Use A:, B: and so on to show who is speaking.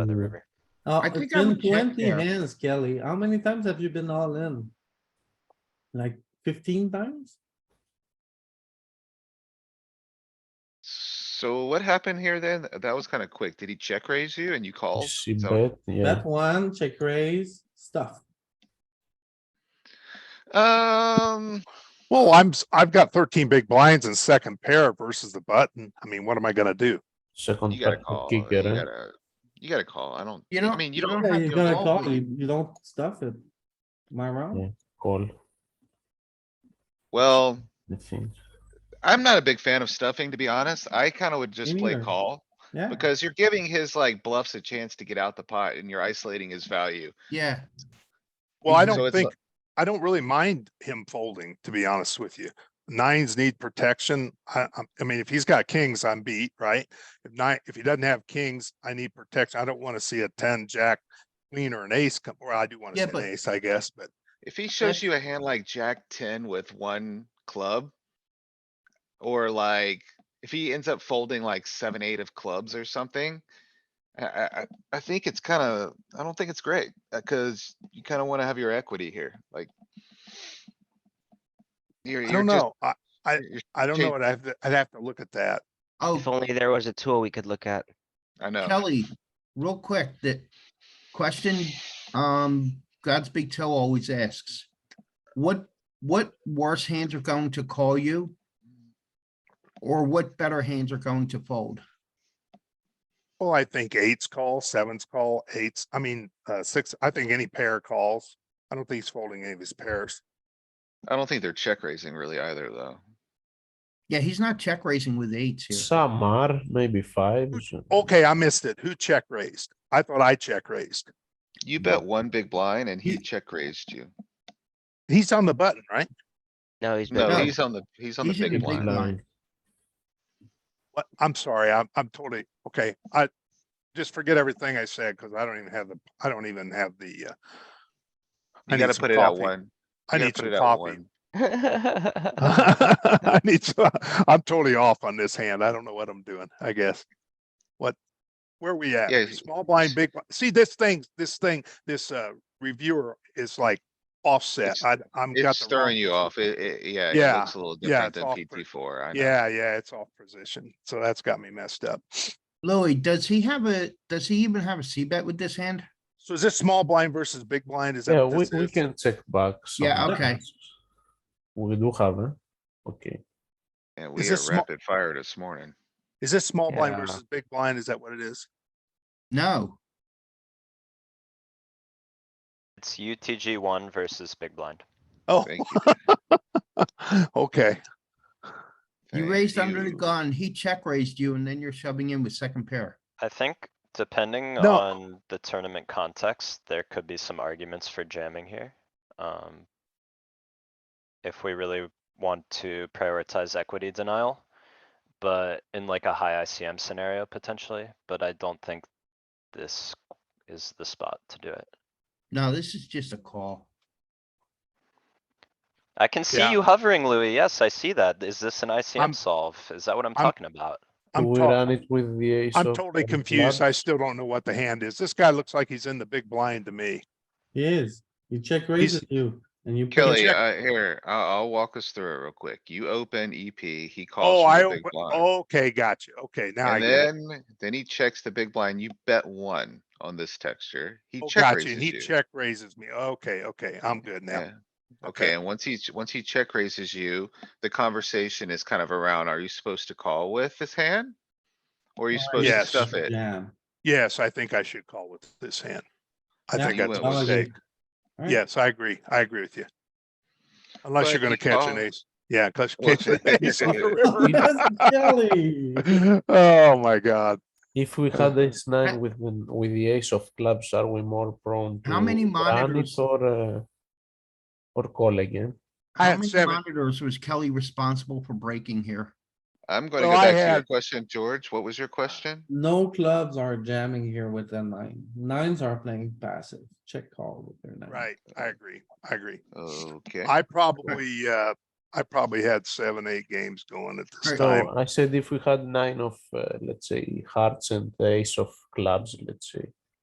A: on the river.
B: Oh,
C: I
B: it's
C: think I
B: been
C: would check
B: twenty
C: there.
B: hands, Kelly. How many times have you been all in? Like fifteen times?
C: So what happened here then? That was kinda quick. Did he check raise you and you called?
D: She
C: So-
D: bet, yeah.
B: That one, check raise, stuff.
C: Um,
E: Well, I'm, s- I've got thirteen big blinds in second pair versus the button. I mean, what am I gonna do?
D: Second
C: you gotta
D: pack
C: call, you
D: kick it, huh?
C: gotta, you gotta call. I don't,
A: You
C: I
A: don't-
C: mean, you
A: you
C: don't
B: Yeah,
C: have
B: you
C: to
B: gotta
C: call.
B: call, you, you don't stuff it. Am I wrong?
D: Yeah. call,
C: Well,
D: I think.
C: I'm not a big fan of stuffing, to be honest. I kinda would just play
B: neither.
C: call.
B: Yeah,
C: Because you're giving his like bluffs a chance to get out the pot and you're isolating his value.
A: Yeah.
E: Well, I
C: So
E: don't
C: it's
E: think, I don't really mind him folding, to be honest with you. Nines need protection. I, I, I mean, if he's got kings, I'm beat, right? If nine, if he doesn't have kings, I need protection. I don't wanna see a ten, jack, queen or an ace come, well, I do wanna see
A: Yeah,
E: an
A: but-
E: ace, I guess, but
C: If he shows you a hand like jack ten with one club. Or like, if he ends up folding like seven, eight of clubs or something. I, I, I- I think it's kinda, I don't think it's great, uh, cuz you kinda wanna have your equity here, like. You're,
E: I
C: you're
E: don't
C: just,
E: know. I,
C: you're- you're-
E: I don't
C: Jake-
E: know. I'd have to, I'd have to look at that.
A: Oh,
F: If only there was a tool we could look at.
C: I know.
A: Kelly, real quick, that question, um, Godspeed Till always asks. What, what worse hands are going to call you? Or what better hands are going to fold?
E: Well, I think eights call, sevens call, eights, I mean, uh, six, I think any pair calls. I don't think he's folding any of his pairs.
C: I don't think they're check raising really either, though.
A: Yeah, he's not check raising with eights here.
D: Some are, maybe five.
E: Okay, I missed it. Who check raised? I thought I check raised.
C: You bet one big blind and he check raised you.
E: He's on the button, right?
F: No, he's
C: No,
A: No.
F: been,
C: he's on the, he's on the
A: He's in
C: big
A: the big
C: blind.
A: blind.
E: What? I'm sorry, I'm, I'm totally, okay, I just forget everything I said because I don't even have the, I don't even have the, uh, I
C: You
E: need
C: gotta
E: some
C: put it out
E: coffee.
C: one.
E: I
C: You gotta
E: need
C: put
E: some
C: it out
E: coffee.
C: one.
E: I need to, I'm totally off on this hand. I don't know what I'm doing, I guess. What, where we
C: Yeah,
E: at?
C: y-
E: Small blind, big, blind. see this thing, this thing, this uh reviewer is like offset.
C: It's-
E: I, I'm got
C: It's
E: the
C: stirring
E: wrong-
C: you off. It, it, yeah, it
E: Yeah,
C: looks a little
E: yeah,
C: different
E: it's
C: than
E: off
C: PT
E: pres-
C: four. I know.
E: Yeah, yeah, it's off position. So that's got me messed up.
A: Louis, does he have a, does he even have a C bet with this hand?
E: So is this small blind versus big blind? Is that?
D: Yeah,
E: what
D: we,
E: this
D: we
E: is?
D: can check back.
A: Yeah,
D: some
A: okay.
D: hands. We do have, huh? Okay.
C: And we
E: Is
C: are
E: this small-
C: rapid fire this morning.
E: Is this small blind
F: Yeah.
E: versus big blind? Is that what it is?
A: No,
G: It's UTG one versus big blind.
E: Oh,
C: Thank you.
E: okay.
A: you
C: Thank
A: raised under the
C: you.
A: gun, he check raised you and then you're shoving in with second pair.
G: I think depending
E: No.
G: on the tournament context, there could be some arguments for jamming here. Um. If we really want to prioritize equity denial, but in like a high ICM scenario potentially, but I don't think this is the spot to do it.
A: No, this is just a call.
G: I can see
E: Yeah.
G: you hovering, Louis. Yes, I see that. Is this an
E: I'm-
G: ICM solve? Is that what I'm
E: I'm-
G: talking about?
D: Do
E: I'm
D: we
E: talking.
D: run it with the ace
E: I'm
D: of
E: totally
D: uh,
E: confused. I
D: clubs?
E: still don't know what the hand is. This guy looks like he's in the big blind to me.
B: he is. You check raises you and you.
C: Kelly,
E: check-
C: uh, here, I'll, I'll walk us through it real quick. You open EP, he
E: Oh,
C: calls
E: I,
C: from the big
E: open-
C: blind.
E: okay, gotcha. Okay, now I
C: And
E: get it.
C: then, then he checks the big blind. You bet one on this texture. He
E: Oh,
C: check
E: Gotcha, and
C: raises
E: he
C: you.
E: check raises me. Okay, okay, I'm good now.
C: Yeah. Okay, and once he's, once he check raises you, the conversation is kind of around, are you supposed to call with this hand? Or are you supposed to
E: yes.
C: stuff it?
B: Yeah.
E: Yes, I think I should call with this hand. I
B: Yeah,
E: think
C: you
E: that's a
C: went with it.
E: mistake.
B: Alright.
E: Yes, I agree. I agree with you. Unless
C: But
E: you're gonna
C: you
E: catch an
C: call-
E: ace. Yeah, cuz
C: Well,
E: you're catching an ace on
B: Yes,
E: the
B: Kelly.
E: river. Oh, my God.
D: If we had ace nine with the, with the ace of clubs, are we more prone to?
A: How many
D: run it
A: monitors-
D: Or, uh, or eh? call again?
E: I
A: How
E: had
A: many
E: seven.
A: monitors was Kelly responsible for breaking here?
C: I'm gonna
E: Well,
C: go
E: I
C: back to your
E: had-
C: question, George. What was your question?
B: No clubs are jamming here with the nine. Nines are playing passive. Check call with their nine.
E: Right, I agree. I agree.
C: Okay.
E: I probably, uh, I probably had seven, eight games going at this
A: Alright.
E: time.
D: So I said if we had nine of, uh, let's say, hearts and ace of clubs, let's say,